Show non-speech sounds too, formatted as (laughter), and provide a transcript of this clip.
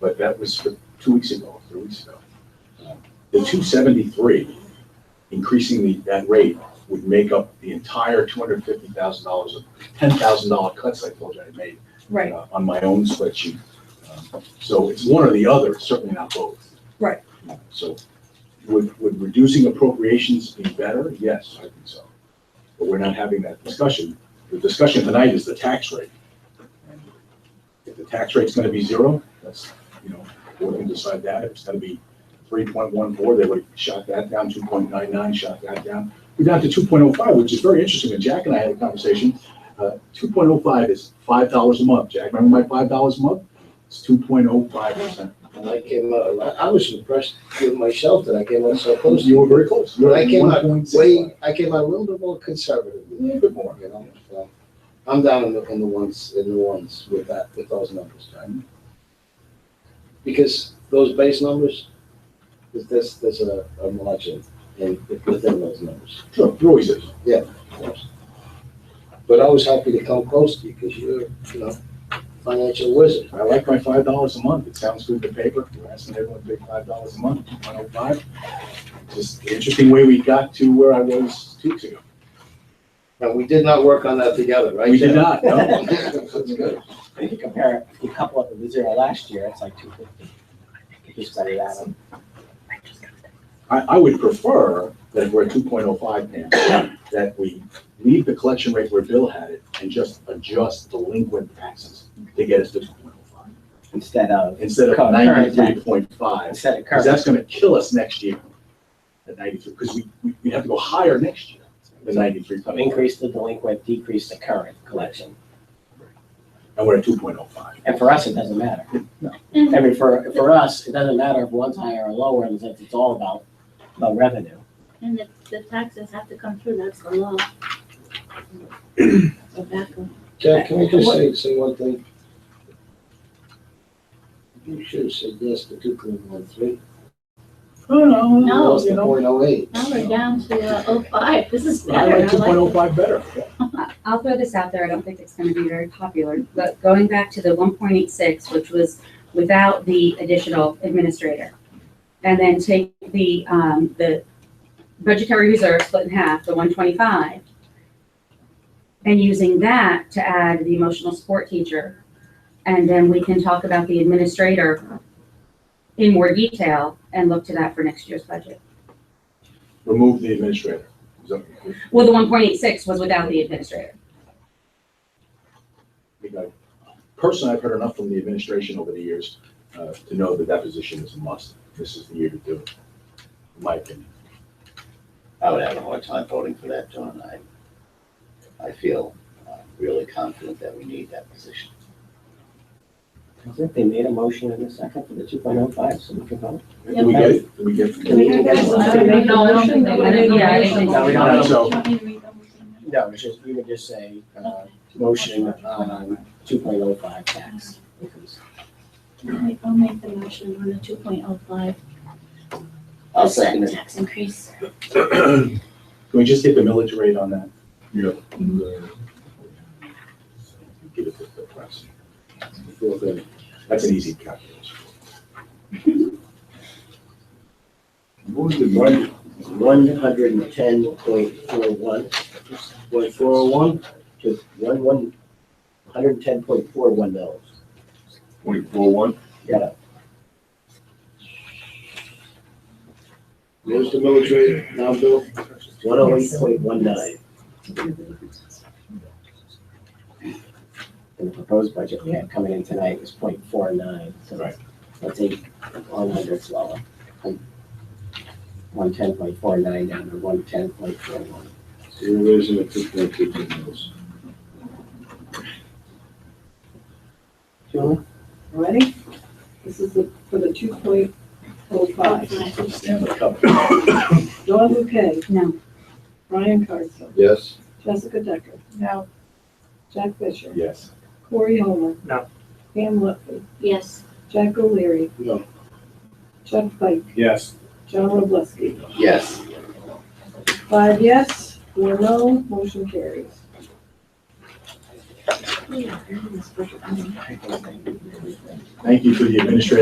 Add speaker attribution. Speaker 1: but that was for two weeks ago, three weeks ago. Uh, The two seventy-three, increasing the, that rate would make up the entire two hundred fifty thousand dollars of ten thousand dollar cuts I told you I made.
Speaker 2: Right,
Speaker 1: uh, On my own spreadsheet. Um, So it's one or the other, it's certainly not both.
Speaker 2: Right.
Speaker 1: So would, would reducing appropriations be better? Yes, I think so. But we're not having that discussion. The discussion tonight is the tax rate. And If the tax rate's gonna be zero, that's, you know, we can decide that. If it's gonna be three point one four, they would shot that down, two point nine nine, shot that down. We're down to two point oh five, which is very interesting. And Jack and I had a conversation. Two point oh five is five dollars a month. Jack, remember my five dollars a month? It's two point oh five percent.
Speaker 3: And I came out, I I was impressed with myself that I came out so close.
Speaker 1: You were very close. You were
Speaker 3: I came out
Speaker 1: 1.65.
Speaker 3: way, I came out a little bit more conservative,
Speaker 1: A
Speaker 3: you
Speaker 1: little bit more.
Speaker 3: know, so. I'm down in the, in the ones, in the ones with that, with those numbers, right? Because those base numbers, there's- there's, there's a, a margin in, within those numbers.
Speaker 1: Sure, there always is.
Speaker 3: of course. But I was happy to come close to you because you're, you know, financial wizard.
Speaker 1: I like my five dollars a month. It sounds good to paper. We're asking everyone to pay five dollars a month, two point oh five. Just the interesting way we got to where I was two weeks ago.
Speaker 3: And we did not work on that together, right?
Speaker 1: We did not, no.
Speaker 3: (laughs) That's good.
Speaker 4: If you compare, it, if you couple up with the zero last year, it's like two fifty. If you study that, um,
Speaker 1: I, I would prefer that we're at two point oh five now, that we leave the collection rate where Bill had it and just adjust delinquent taxes to get us to two point oh five,
Speaker 4: instead of,
Speaker 1: instead of
Speaker 4: Current tax.
Speaker 1: ninety-three point five.
Speaker 4: instead of
Speaker 1: Because
Speaker 4: current.
Speaker 1: that's gonna kill us next year at ninety-three, because we, we- we have to go higher next year than ninety-three.
Speaker 4: So Increase the delinquent, decrease the current collection.
Speaker 1: And we're at two point oh five.
Speaker 4: And for us, it doesn't matter.
Speaker 1: No.
Speaker 5: Mm-hmm.
Speaker 4: I mean, for, for us, it doesn't matter if one's higher or lower, in the sense it's all about, about revenue.
Speaker 5: And the, the taxes have to come through, that's the law. So back on.
Speaker 3: Jack, can I just say, say one thing? You should have said yes to two point one three.
Speaker 1: Oh,
Speaker 5: No.
Speaker 3: Lost the point oh eight.
Speaker 5: Now we're down to oh five, this is
Speaker 1: I
Speaker 5: better, I
Speaker 1: like two point oh
Speaker 5: like
Speaker 1: five better.
Speaker 6: I- I'll throw this out there, I don't think it's gonna be very popular, but going back to the one point eight six, which was without the additional administrator. And then take the, um, the budgetary reserve split in half, the one twenty-five. And using that to add the emotional support teacher. And then we can talk about the administrator in more detail and look to that for next year's budget.
Speaker 1: Remove the administrator. Is that-
Speaker 6: Well, the one point eight six was without the administrator.
Speaker 1: think I- Personally, I've heard enough from the administration over the years uh, to know that that position is a must. This is the year to do it, in my opinion.
Speaker 7: I would have a hard time voting for that, John. I, I feel uh, really confident that we need that position.
Speaker 4: I think they made a motion in a second for the two point oh five, so we can vote.
Speaker 1: Did we get it? Did we get
Speaker 5: Can we do that?
Speaker 4: I don't
Speaker 5: think-
Speaker 6: No, I don't think
Speaker 5: I
Speaker 6: they
Speaker 5: don't
Speaker 6: would. Yeah, I
Speaker 7: oh
Speaker 5: think-
Speaker 6: think-
Speaker 4: No, we don't
Speaker 1: have-
Speaker 5: Do you want me to read the whole thing?
Speaker 4: No, it's just, you would just say, uh, motion on two point oh five tax increase.
Speaker 5: I'll I'll make the motion on the two point oh five.
Speaker 7: I'll second it.
Speaker 5: Tax increase.
Speaker 1: Can we just get the military rate on that? Yeah. Give it to the press.
Speaker 3: Feel good.
Speaker 1: That's an easy calculation.
Speaker 7: Move the one, one hundred and ten point four one, point four oh one to one, one, hundred and ten point four one dollars.
Speaker 8: Point four one?
Speaker 7: Yeah,
Speaker 3: Where's the military now, Bill?
Speaker 7: one oh eight point one nine.
Speaker 4: And the proposed budget we had coming in tonight was 0.49. so
Speaker 1: Right.
Speaker 4: let's eight, one hundredths lower. One ten point four nine down to one ten point four one.
Speaker 3: You're raising it two point two two mils.
Speaker 4: Julie?
Speaker 9: Ready? This is the, for the two point oh five.
Speaker 1: Stanley Cup.
Speaker 9: (coughs) Don Bouquet,
Speaker 6: No,
Speaker 9: Brian Carson,
Speaker 3: Yes.
Speaker 9: Jessica Decker. No. Jack Fisher,
Speaker 1: Yes.
Speaker 9: Corey Holmer.
Speaker 4: No.
Speaker 9: Pam Lutford,
Speaker 5: Yes,
Speaker 9: Jack O'Leary.
Speaker 3: No.
Speaker 9: Chuck Pike,
Speaker 1: Yes.
Speaker 9: John Robleski.
Speaker 7: Yes,
Speaker 9: Five yes, four no, motion carries.
Speaker 1: Thank you for the administrative